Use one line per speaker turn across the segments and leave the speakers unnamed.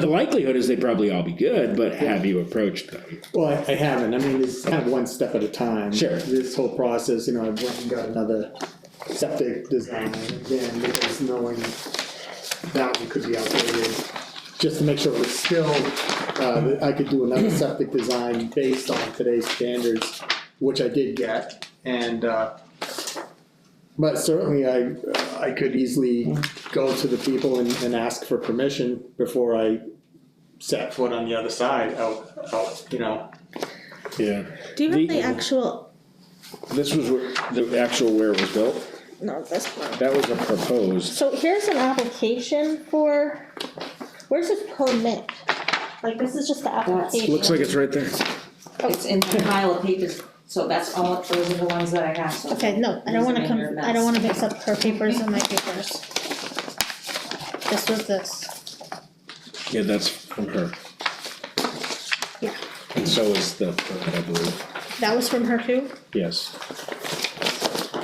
The likelihood is they probably all be good, but have you approached them?
Well, I- I haven't, I mean, it's kind of one step at a time.
Sure.
This whole process, you know, I've went and got another septic design again, because knowing that one could be outdated. Just to make sure it's still, uh, that I could do another septic design based on today's standards, which I did get, and, uh, but certainly I, I could easily go to the people and, and ask for permission before I set foot on the other side, out, out, you know,
Yeah.
Do you have
The-
the actual,
This was where- the actual where it was built,
no, this one.
that was a proposed,
So here's an application for, where's the permit? Like, this is just the application.
looks like it's right there.
It's in the pile of papers, so that's all, those are the ones that I have, so.
Okay, no, I don't wanna
Those are in
come,
your
I don't
mess.
wanna mix up her papers and my papers. This was this,
Yeah, that's from her.
yeah,
And so is the, permit, I believe,
that was from her too?
yes.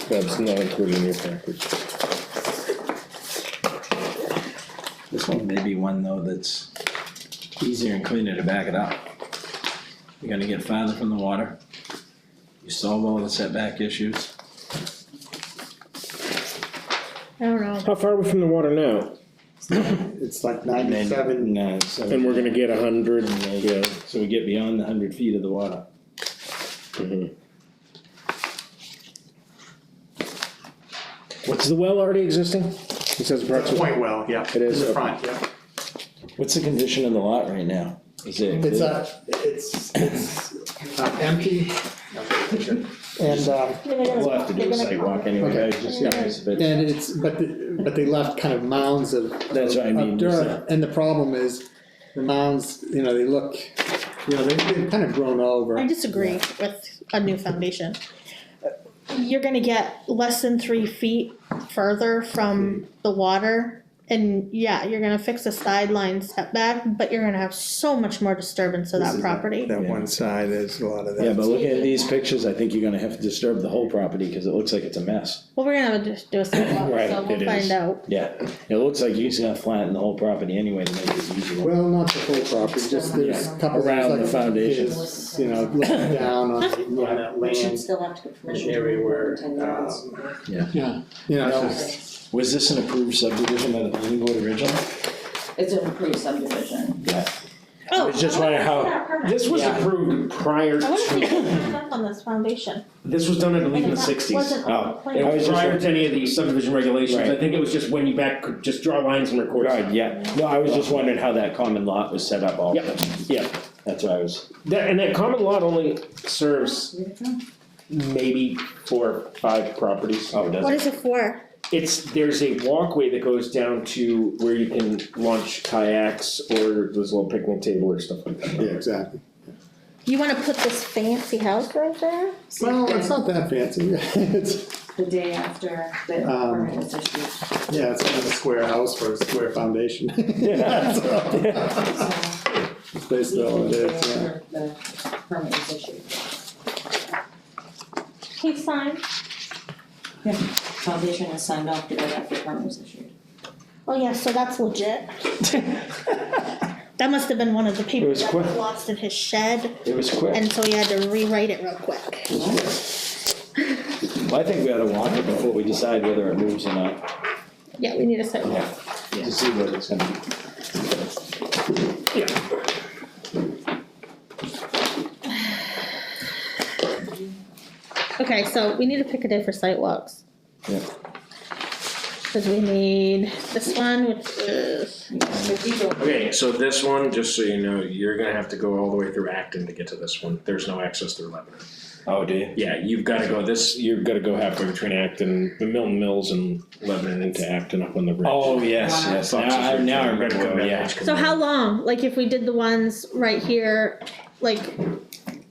That's not included in your package.
This one may be one though that's easier and cleaner to back it up. You're gonna get farther from the water. You solve all the setback issues.
I don't know,
How far are we from the water now?
It's like ninety-seven,
No, so-
And we're gonna get a hundred, yeah.
So we get beyond the hundred feet of the water.
What's the well already existing? It says approximately.
point well, yeah,
It is
in the
up.
front, yeah.
What's the condition of the lot right now? Is it?
It's uh it's, it's uh, empty. And, um,
they're gonna,
We'll have to do
they're
a
gonna
site
call.
walk anyway,
Okay.
I was just curious if it-
and it's, but, the- but they left kind of mounds of.
That's what I mean,
of
is
dirt.
that-
And the problem is, the mounds, you know, they look, you know, they- they've kind of grown over.
I disagree with a new foundation. You're gonna get less than three feet further from the water. And yeah, you're gonna fix the sideline setback, but you're gonna have so much more disturbance of that property.
Yeah. one
side, there's a lot of
Yeah, but looking at these pictures, I think you're gonna have to disturb the whole property, cause it looks like it's a mess.
Well, we're gonna have to just do a sidewalk,
Right,
so
it
we'll
is.
find out.
Yeah, it looks like you're just gonna flatten the whole property anyway to make it easier.
Well, not the whole property, just there's a couple.
Around the
like,
foundation.
is, You know, looking down on, on that
We should
land.
still have to get permission.
Area where, uh,
Ten yards.
Yeah, you know, it's just-
Was this an approved subdivision by the planning board originally?
It's an approved subdivision.
Yeah.
Oh,
was just wondering how- This was
Yeah.
approved prior
I wanna see
to,
what's up on this foundation.
this was done, I believe, in
And
the
that
sixties.
wasn't on the plan.
Oh. It
I
was
was just-
prior to any of the subdivision regulations, I
Right.
think it was just when you back, could just draw lines and record.
Right, yeah, no, I was just wondering how that common lot was set up all.
Yep, yeah,
That's why I was,
that, and that common lot only serves maybe four, or five properties.
oh, it
What
doesn't,
is it for?
It's, there's a walkway that goes down to where you can launch kayaks or there's a little picnic table or stuff like that.
yeah, exactly.
You wanna put this fancy house right there?
Well, it's not that fancy, it's,
The day after the
Um,
permit was issued,
yeah, it's kind of a square house for a square foundation.
Yeah.
So,
so.
It's basically all it is, yeah.
The permit was issued.
He's signed.
Foundation is signed off the day after permit was issued.
Oh yeah, so that's legit. That must have been one of the
It
people
was
that
quick.
was lost in his shed,
it was quick.
and so he had to rewrite it real quick.
Well, I think we ought to walk it before we decide whether it moves or not,
Yeah, we need a sidewalk.
yeah, to see what it's gonna be.
Okay, so we need to pick a day for sidewalks.
Yeah.
Cause we need this one, which is,
The detour
Okay, so this one, just so you know, you're gonna have to go all the way through Acton to get to this one. There's no access through Lebanon.
Oh, do you?
Yeah, you've gotta go this, you've gotta go halfway between Acton, the Milton Mills and Lebanon into Acton up on the ridge.
Oh, yes,
Wow.
yes, now, I, now I remember, yeah.
so how long? Like if we did the ones right here, like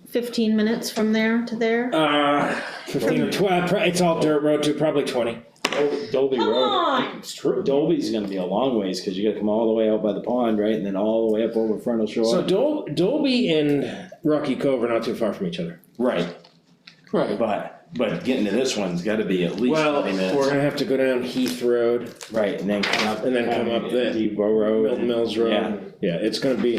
fifteen minutes from there to there?
Uh, fifteen or twelve, uh, it's all dirt road too, probably twenty.
Dol- Oh, Dolby
Come
Road,
on!
It's true.
Dolby's gonna be a long ways, cause you gotta come all the way out by the pond, right, and then all the way up over Frontal
So
Shore.
Dol- Dolby and Rocky Cove are not too far from each other.
Right,
Right.
but but getting to this one's gotta be at least
Well,
twenty
we're
minutes,
gonna have to go down Heath Road
right, and then come up.
and then come up the
Depot Road.
Milton Mills
Yeah.
Road. Yeah, it's gonna be